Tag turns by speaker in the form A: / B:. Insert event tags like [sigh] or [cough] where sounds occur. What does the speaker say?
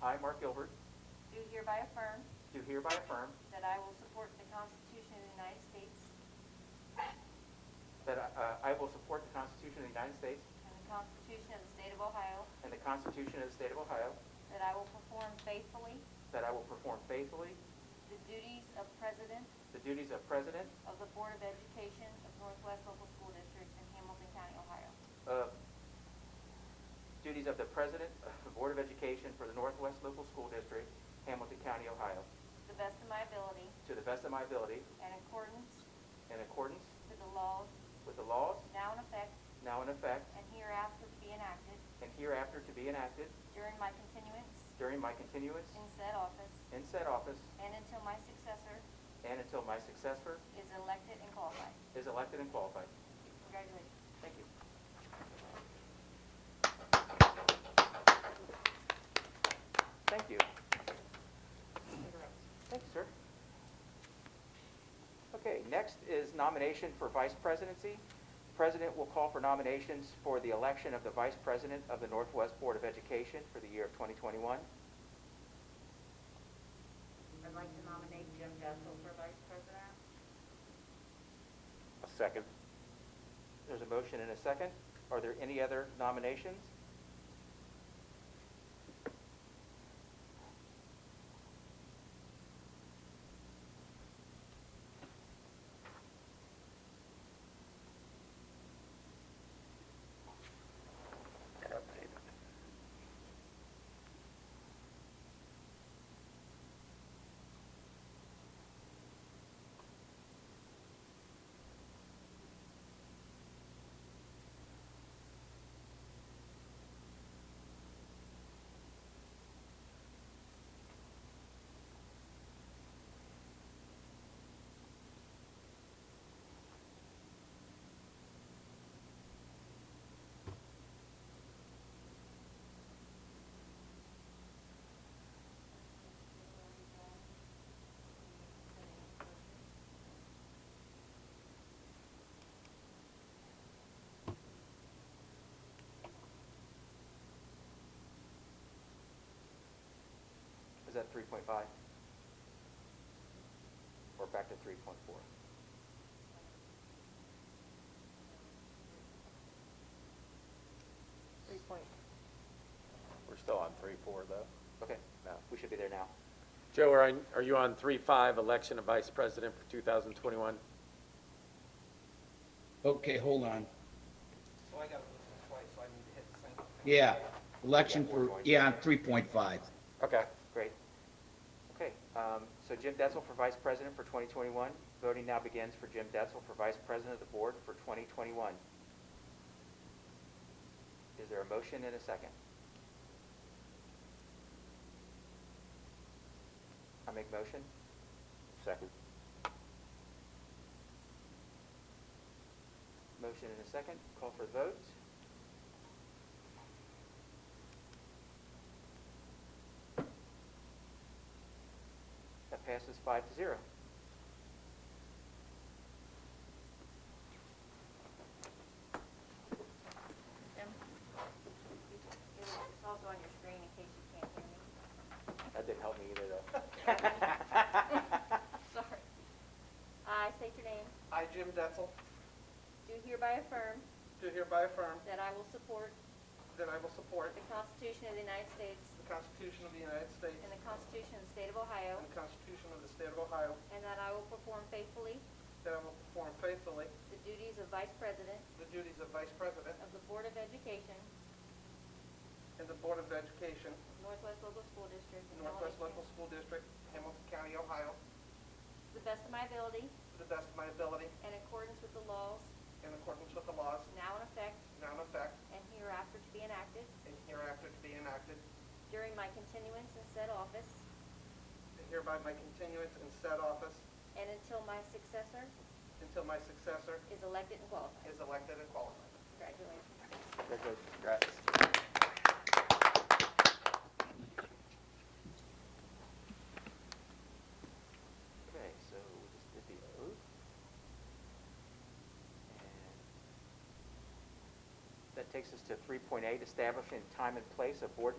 A: I, Mark Gilbert,
B: do hereby affirm
A: do hereby affirm
B: that I will support the Constitution of the United States
A: that uh, I will support the Constitution of the United States
B: and the Constitution of the State of Ohio,
A: and the Constitution of the State of Ohio,
B: that I will perform faithfully
A: that I will perform faithfully
B: the duties of President
A: the duties of President
B: of the Board of Education of Northwest Local School District in Hamilton County, Ohio,
A: of, duties of the President of the Board of Education for the Northwest Local School District, Hamilton County, Ohio,
B: to the best of my ability
A: to the best of my ability,
B: and accordance
A: in accordance
B: with the laws
A: with the laws
B: now in effect
A: now in effect
B: and hereafter to be enacted
A: and hereafter to be enacted
B: during my continuance
A: during my continuance
B: in said office
A: in said office
B: and until my successor
A: and until my successor
B: is elected and qualified.
A: is elected and qualified.
B: Congratulations.
A: Thank you. Thank you. Thank you, sir. Okay, next is nomination for vice presidency. The President will call for nominations for the election of the vice president of the Northwest Board of Education for the year of 2021.
C: I'd like to nominate Jim Gessel for vice president.
D: A second.
A: There's a motion and a second. Are there any other nominations? Is that 3.5? Or back to 3.4?
E: Three point,
D: We're still on three, four, though.
A: Okay,
D: No.
A: we should be there now.
D: Joe, are, I- are you on three, five, election of vice president for 2021?
F: Okay, hold on.
G: So I gotta listen twice, so I need to hit the same.
F: Yeah, election for, yeah, on three point five.
D: Okay.
A: Great. Okay, um, so Jim Detzel for Vice President for 2021. Voting now begins for Jim Detzel for Vice President of the Board for 2021. Is there a motion and a second? I make motion?
D: Second.
A: Motion and a second. Call for the vote. That passes five to zero.
B: Jim? It's also on your screen in case you can't hear
G: [laughs]
B: me.
A: That didn't help me
B: [laughs]
A: either, though.
B: Sorry. I state your name.
G: I, Jim Detzel,
B: Do hereby affirm
G: do hereby affirm
B: that I will support
G: that I will support
B: the Constitution of the United States
G: the Constitution of the United States
B: and the
G: and
B: Constitution of the State of Ohio,
G: the Constitution of the State of Ohio,
B: and that I will perform faithfully
G: that I will perform faithfully
B: the duties of Vice President
G: the duties of Vice President
B: of the Board of Education,
G: in the Board of Education,
B: of Northwest Local School District, in
G: Northwest
B: Hamilton,
G: Local School District, Hamilton County, Ohio,
B: to the best of my ability
G: to the best of my ability,
B: and accordance with the laws
G: in accordance with the laws
B: now in effect
G: now in effect
B: and hereafter to be enacted
G: and hereafter to be enacted,
B: during my continuance in said office
G: and hereby my continuance in said office
B: and until my successor
G: until my successor
B: is elected and qualified.
G: is elected and qualified.
B: Congratulations.
A: Okay, so we just did the oath. And That takes us to 3.8, establishing time and place of board meetings.